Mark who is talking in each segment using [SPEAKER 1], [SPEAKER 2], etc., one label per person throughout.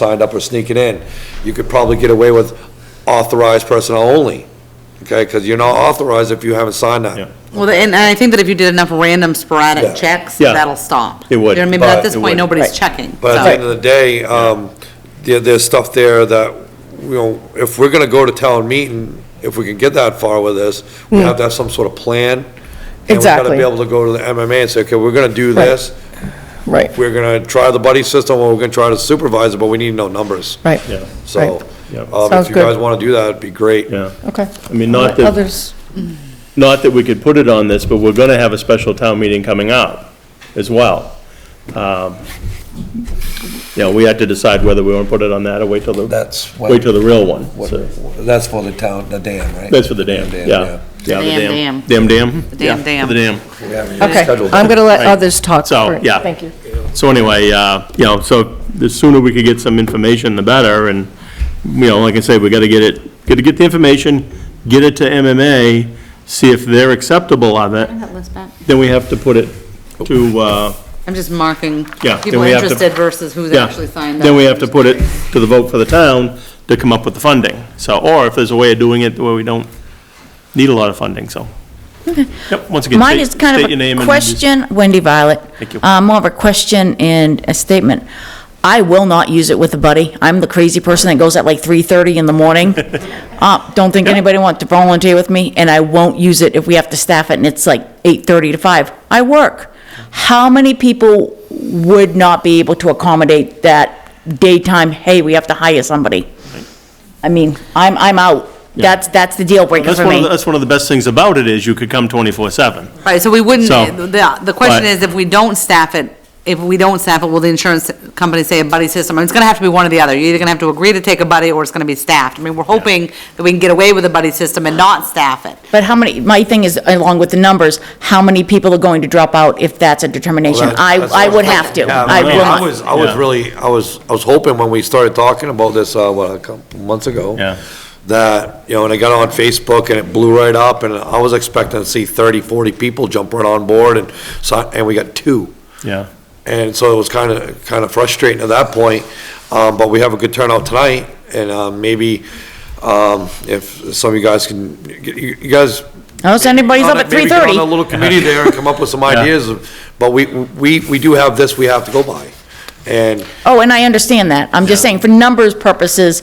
[SPEAKER 1] signed up or sneaking in, you could probably get away with authorized personnel only, okay? Because you're not authorized if you haven't signed
[SPEAKER 2] Yeah.
[SPEAKER 1] that.
[SPEAKER 3] Well, and and I think that if you did enough random
[SPEAKER 1] Yeah.
[SPEAKER 3] sporadic checks,
[SPEAKER 2] Yeah.
[SPEAKER 3] that'll stop.
[SPEAKER 2] It would,
[SPEAKER 3] You know what I mean? But
[SPEAKER 1] but
[SPEAKER 3] at this
[SPEAKER 2] it
[SPEAKER 3] point,
[SPEAKER 2] would.
[SPEAKER 3] nobody's
[SPEAKER 4] Right.
[SPEAKER 3] checking.
[SPEAKER 1] But at the end
[SPEAKER 3] so-
[SPEAKER 1] of the day, um, there, there's stuff there that, you know, if we're gonna go to town meeting, if we can get that far with this, we have to have some sort of plan. And
[SPEAKER 4] Hmm. Exactly.
[SPEAKER 1] we gotta be able to go to the MMA and say, okay, we're gonna do
[SPEAKER 4] Right.
[SPEAKER 1] this,
[SPEAKER 4] Right,
[SPEAKER 1] we're gonna try the buddy system, or we're gonna try to supervise it, but we need to know numbers.
[SPEAKER 4] right.
[SPEAKER 2] Yeah,
[SPEAKER 1] So,
[SPEAKER 4] Right.
[SPEAKER 2] Yeah.
[SPEAKER 1] um, if
[SPEAKER 4] Sounds
[SPEAKER 1] you
[SPEAKER 4] good.
[SPEAKER 1] guys wanna do that, it'd be great.
[SPEAKER 2] yeah.
[SPEAKER 4] Okay.
[SPEAKER 2] I mean, not that,
[SPEAKER 4] Others,
[SPEAKER 2] not that we could put it on this, but we're gonna have a special town meeting coming up as well. Um, You know, we had to decide whether we want to put it on that or wait till the,
[SPEAKER 5] That's what,
[SPEAKER 2] wait till the real one. so.
[SPEAKER 5] that's for the town, the dam, right?
[SPEAKER 2] That's for the dam, yeah. Yeah,
[SPEAKER 3] Dam,
[SPEAKER 2] Dam, dam?
[SPEAKER 3] The dam,
[SPEAKER 2] Yeah,
[SPEAKER 3] dam.
[SPEAKER 2] for The dam.
[SPEAKER 4] okay. I'm going to let
[SPEAKER 2] Right.
[SPEAKER 4] others talk.
[SPEAKER 2] So,
[SPEAKER 4] Great.
[SPEAKER 2] yeah.
[SPEAKER 4] Thank you.
[SPEAKER 2] So anyway, uh, you know, so the sooner we could get some information, the better, and, you know, like I say, we gotta get it, gotta get the information, get it to MMA, see if they're acceptable of it,
[SPEAKER 3] Bring that list back.
[SPEAKER 2] then we have to put it to, uh,
[SPEAKER 3] I'm just marking
[SPEAKER 2] Yeah, then
[SPEAKER 3] people
[SPEAKER 2] we have to-
[SPEAKER 3] interested versus who's
[SPEAKER 2] yeah.
[SPEAKER 3] actually signed up.
[SPEAKER 2] Then we have to put it to the vote for the town to come up with the funding, so, or if there's a way of doing it where we don't need a lot of funding, so. Yep, once again,
[SPEAKER 6] Mine
[SPEAKER 2] state-
[SPEAKER 6] is kind
[SPEAKER 2] state your
[SPEAKER 6] of
[SPEAKER 2] name
[SPEAKER 6] a
[SPEAKER 2] and
[SPEAKER 6] question, Wendy Violet.
[SPEAKER 2] Thank you.
[SPEAKER 6] Uh, More of a question and a statement. I will not use it with a buddy. I'm the crazy person that goes at like 3:30 in the morning. Uh, Don't think anybody wants to volunteer with me, and I won't use it if we have to staff it and it's like 8:30 to 5. I work. How many people would not be able to accommodate that daytime, hey, we have to hire somebody? I mean, I'm, I'm out. That's, that's the deal breaker
[SPEAKER 2] That's
[SPEAKER 6] for
[SPEAKER 2] one of,
[SPEAKER 6] me.
[SPEAKER 2] the- that's one of the best things about it, is you could come twenty-four seven.
[SPEAKER 3] Right, so we wouldn't,
[SPEAKER 2] So-
[SPEAKER 3] the, the question
[SPEAKER 2] Right.
[SPEAKER 3] is, if we don't staff it, if we don't staff it, will the insurance company say a buddy system? I mean, It's gonna have to be one or the other. You're either gonna have to agree to take a buddy, or it's gonna be staffed. I mean, we're hoping that we can get away with a buddy system and not staff it.
[SPEAKER 6] But how many, my thing is, along with the numbers, how many people are going to drop out if that's a determination?
[SPEAKER 1] Well, that-
[SPEAKER 6] I,
[SPEAKER 1] that's
[SPEAKER 6] I
[SPEAKER 1] what
[SPEAKER 6] would
[SPEAKER 1] was
[SPEAKER 6] have to.
[SPEAKER 1] thinking.
[SPEAKER 6] I will
[SPEAKER 1] I
[SPEAKER 6] not.
[SPEAKER 1] was, I was
[SPEAKER 2] Yeah.
[SPEAKER 1] really, I was, I was hoping when we started talking about this, uh, what, a couple months ago?
[SPEAKER 2] Yeah.
[SPEAKER 1] That, you know, and I got on Facebook and it blew right up, and I was expecting to see 30, 40 people jump right on board, and so, and we got two.
[SPEAKER 2] Yeah.
[SPEAKER 1] And so it was kind of, kind of frustrating at that point, um, but we have a good turnout tonight, and, um, maybe, um, if some of you guys can, you you guys
[SPEAKER 6] Unless anybody's up at
[SPEAKER 1] Maybe get on a
[SPEAKER 6] 3:30.
[SPEAKER 1] little committee there and come up with some ideas, of- but we, we, we do have this we have to go by. And,
[SPEAKER 6] Oh, and I understand that. I'm just saying, for numbers purposes,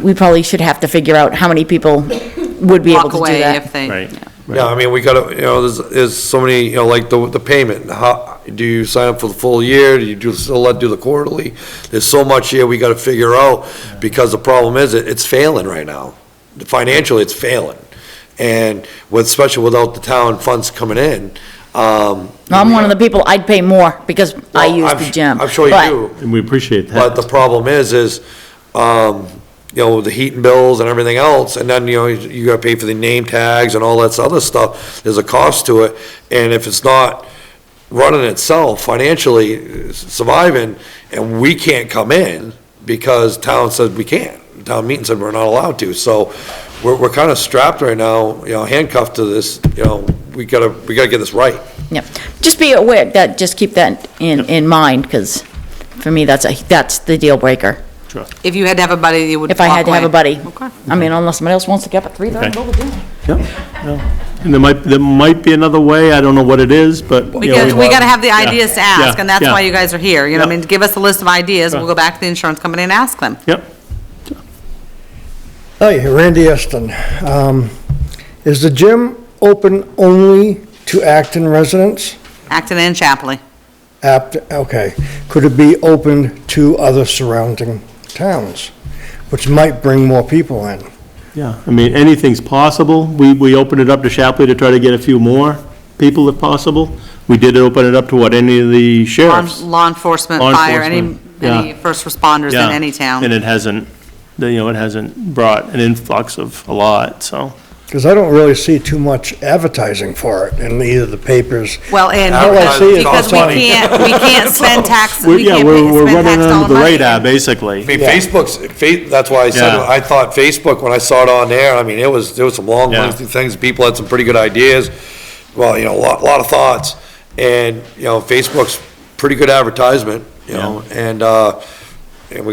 [SPEAKER 6] we probably should have to figure out how many people would be
[SPEAKER 3] Walk
[SPEAKER 6] able to do
[SPEAKER 3] away
[SPEAKER 6] that.
[SPEAKER 3] if they.
[SPEAKER 2] Right.
[SPEAKER 3] yeah.
[SPEAKER 1] yeah, I mean, we gotta, you know, there's, there's so many, you know, like the, the payment, how, do you sign up for the full year, do you do, still let, do the quarterly? There's so much here we gotta figure out, because the problem is, it, it's failing right now. Financially, it's failing. And with, especially without the town funds coming in, um.
[SPEAKER 6] I'm one of the people, I'd pay more because I
[SPEAKER 1] Well,
[SPEAKER 6] use
[SPEAKER 1] I'm
[SPEAKER 6] the
[SPEAKER 1] su-
[SPEAKER 6] gym.
[SPEAKER 1] I'm sure you
[SPEAKER 6] But-
[SPEAKER 1] do.
[SPEAKER 2] And we appreciate that.
[SPEAKER 1] But the problem is, is, um, you know, the heat and bills and everything else, and then, you know, you- you gotta pay for the name tags and all that other stuff, there's a cost to it, and if it's not running itself financially, surviving, and we can't come in, because town said we can't, town meeting said we're not allowed to, so we're, we're kinda strapped right now, you know, handcuffed to this, you know, we gotta, we gotta get this right.
[SPEAKER 6] Yep. Just be aware that, just keep that in, in mind, because for me, that's, a that's the deal breaker.
[SPEAKER 3] If you had to have a buddy, you would
[SPEAKER 6] If I
[SPEAKER 3] walk
[SPEAKER 6] had to have a
[SPEAKER 3] away.
[SPEAKER 6] buddy.
[SPEAKER 3] Okay.
[SPEAKER 6] I mean, unless somebody else wants to get up at 3:30 and
[SPEAKER 2] Okay.
[SPEAKER 6] go to the gym.
[SPEAKER 2] And there might, there might be another way, I don't know what it is, but. you know,
[SPEAKER 3] Because we gotta have the
[SPEAKER 2] Yeah,
[SPEAKER 3] ideas to ask,
[SPEAKER 2] yeah,
[SPEAKER 3] and that's
[SPEAKER 2] yeah.
[SPEAKER 3] why you guys are here, you know, what I
[SPEAKER 2] Yeah.
[SPEAKER 3] mean, give us a list of ideas, we'll
[SPEAKER 2] Sure.
[SPEAKER 3] go back to the insurance company and ask them.
[SPEAKER 2] Yep,
[SPEAKER 7] Hi, Randy Eston. Um, Is the gym open only to Acton residents?
[SPEAKER 3] Acton and Chapley.
[SPEAKER 7] Apt, okay. Could it be open to other surrounding towns, which might bring more people in?
[SPEAKER 2] yeah, I mean, anything's possible, we, we opened it up to Shapley to try to get a few more people if possible. We did open it up to what, any of the
[SPEAKER 3] Law-
[SPEAKER 2] sheriffs?
[SPEAKER 3] Law enforcement,
[SPEAKER 2] Law
[SPEAKER 3] fire, any,
[SPEAKER 2] enforcement, yeah.
[SPEAKER 3] any first responders
[SPEAKER 2] Yeah,
[SPEAKER 3] in any
[SPEAKER 2] And
[SPEAKER 3] town.
[SPEAKER 2] it hasn't, you know, it hasn't brought an influx of a lot, so.
[SPEAKER 7] Because I don't really see too much advertising for it in either the papers.
[SPEAKER 3] Well, and
[SPEAKER 7] All I see is
[SPEAKER 3] because, because we
[SPEAKER 7] Bonnie.
[SPEAKER 3] can't, we can't spend tax,
[SPEAKER 2] We're-
[SPEAKER 3] we
[SPEAKER 2] Yeah,
[SPEAKER 3] can't
[SPEAKER 2] we're,
[SPEAKER 3] pay-
[SPEAKER 2] we're
[SPEAKER 3] spend tax
[SPEAKER 2] running
[SPEAKER 3] dollar
[SPEAKER 2] under the
[SPEAKER 3] money.
[SPEAKER 2] radar,
[SPEAKER 1] I
[SPEAKER 2] basically.
[SPEAKER 1] mean, Facebook's, fa- that's why I said,
[SPEAKER 2] Yeah.
[SPEAKER 1] I thought Facebook, when I saw it on there, I mean, it was, there was some long,
[SPEAKER 2] Yeah.
[SPEAKER 1] lengthy things, people had some pretty good ideas, well, you know, a lot, lot of thoughts, and, you know, Facebook's pretty good advertisement, you know, and, uh, and we got